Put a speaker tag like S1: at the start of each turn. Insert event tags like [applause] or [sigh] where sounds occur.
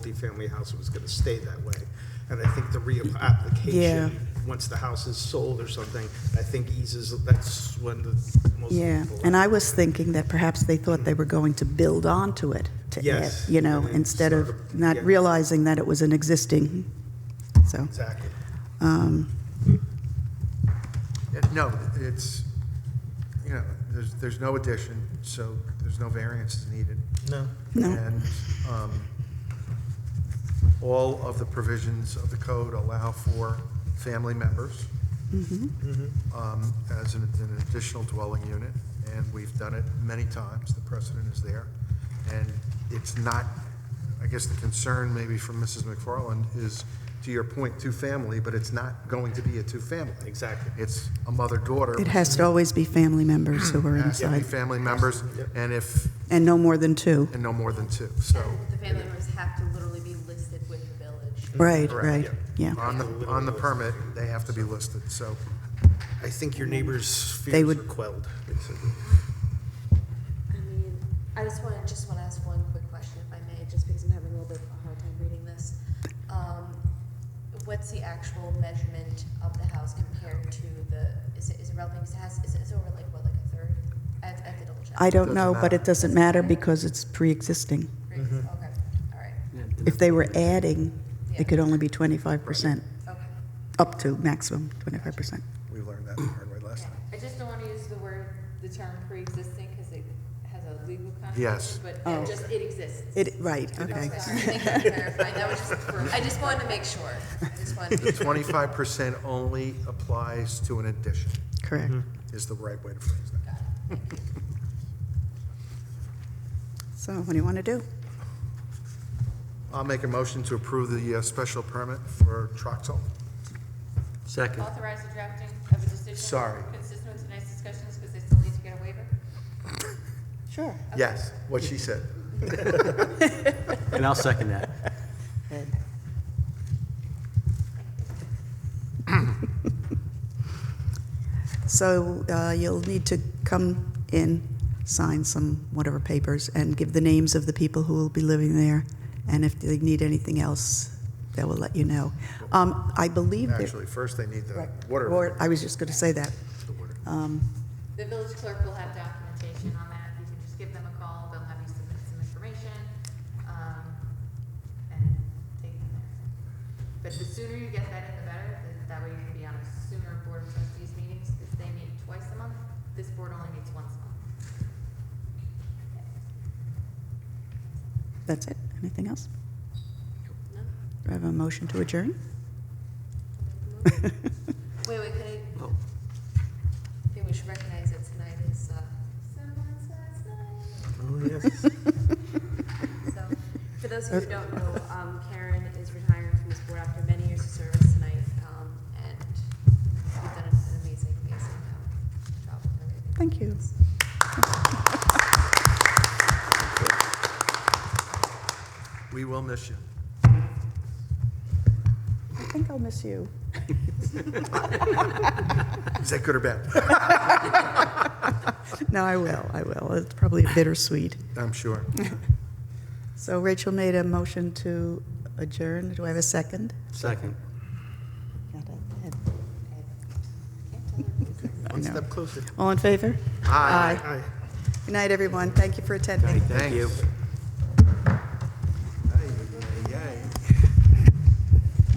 S1: multifamily house was gonna stay that way. And I think the reapplication, once the house is sold or something, I think eases, that's when the most
S2: Yeah,
S1: people.
S2: and I was thinking that perhaps they thought they were going to build onto it to add,
S1: Yes,
S2: you know,
S1: and then
S2: instead of
S1: sort of-
S2: not
S1: yeah.
S2: realizing that it was an existing, so,
S1: Exactly.
S2: um,
S3: Yeah, Uh, No, it's, you know, there's, there's no addition, so there's no variances needed.
S1: No.
S2: no,
S3: And um, all of the provisions of the code allow for family members um, as an an additional dwelling unit, and we've done it many times, the precedent is there. And it's not, I guess the concern maybe from Mrs. McFarland is, to your point, two-family, but it's not going to be a two-family.
S1: Exactly.
S3: It's a mother-daughter.
S2: it has to always be family members who are
S3: Has to be
S2: inside,
S3: family members, and if,
S2: and no more than two.
S3: and no more than two, so.
S4: The family members have to literally be listed with the village.
S2: Right,
S3: Correct,
S2: right, yeah.
S3: On the, on the permit, they have to be listed, so.
S1: I think your neighbor's
S2: They
S1: fears
S2: would-
S1: are quelled, basically.
S4: I mean, I just want to, just want to ask one quick question, if I may, just because I'm having a little bit of a hard time reading this. Um, What's the actual measurement of the house compared to the, is it, is it relevant, because it has, is it it's over like, what, like a third? I have I have to double check.
S2: I don't
S3: Doesn't
S2: know, but
S3: matter.
S2: it doesn't matter because it's pre-existing.
S4: Right,
S3: Mm-hmm.
S4: Okay, all right,
S2: If they were adding,
S4: Yeah.
S2: it could only be 25%,
S4: okay.
S2: up to maximum 25%.
S3: We learned that the hard way last time.
S5: I just don't want to use the word, the term pre-existing, because it has a legal connotation.
S3: Yes.
S5: But
S2: Oh.
S5: it just, it exists.
S2: It, right, okay.
S4: Sorry, thank you for clarifying, that was just, for- I just wanted to make sure, I just wanted to be
S3: Twenty-five percent only applies to an addition,
S2: Correct.
S3: is the right way to phrase that.
S2: So what do you want to do?
S3: I'll make a motion to approve the uh, special permit for Troxel.
S6: Second.
S5: Authorize the drafting of a decision.
S3: Sorry.
S5: Consistent with tonight's discussions, because they still need to get a waiver.
S2: Sure.
S3: Yes, what she said.
S6: And I'll second that.
S2: So uh, you'll need to come in, sign some whatever papers, and give the names of the people who will be living there, and if they need anything else, they will let you know. Um, I believe that...
S3: Actually, first they need the
S2: Right.
S3: water.
S2: Or- I was just going to say that.
S5: The village clerk will have documentation on that. You can just give them a call, they'll have you submit some information, um, and take them there. But the sooner you get that in, the better. Th- That way you can be on a sooner board of trustees meetings, because they meet twice a month. This board only meets once a month.
S2: That's it. Anything else?
S5: No?
S2: Do I have a motion to adjourn?
S4: Wait, wait, can I?
S6: Oh.
S4: I think we should recognize that tonight is, uh, someone's last night.
S1: Oh, yes.
S4: So, for those who don't know, um, Karen is retiring from this board after many years of service tonight, um, and you've done an amazing, amazing, um, job with everything.
S2: Thank you.
S3: We will miss you.
S2: I think I'll miss you.
S3: Is that good or bad?
S2: [laughs] [laughs] No, I will, I will. It's probably bittersweet.
S3: I'm sure.
S2: So Rachel made a motion to adjourn. Do I have a second?
S6: Second.
S1: One step closer.
S2: All in favor?
S3: Aye.
S2: Good night, everyone. Thank you for attending.
S6: Thank you.
S3: Thanks.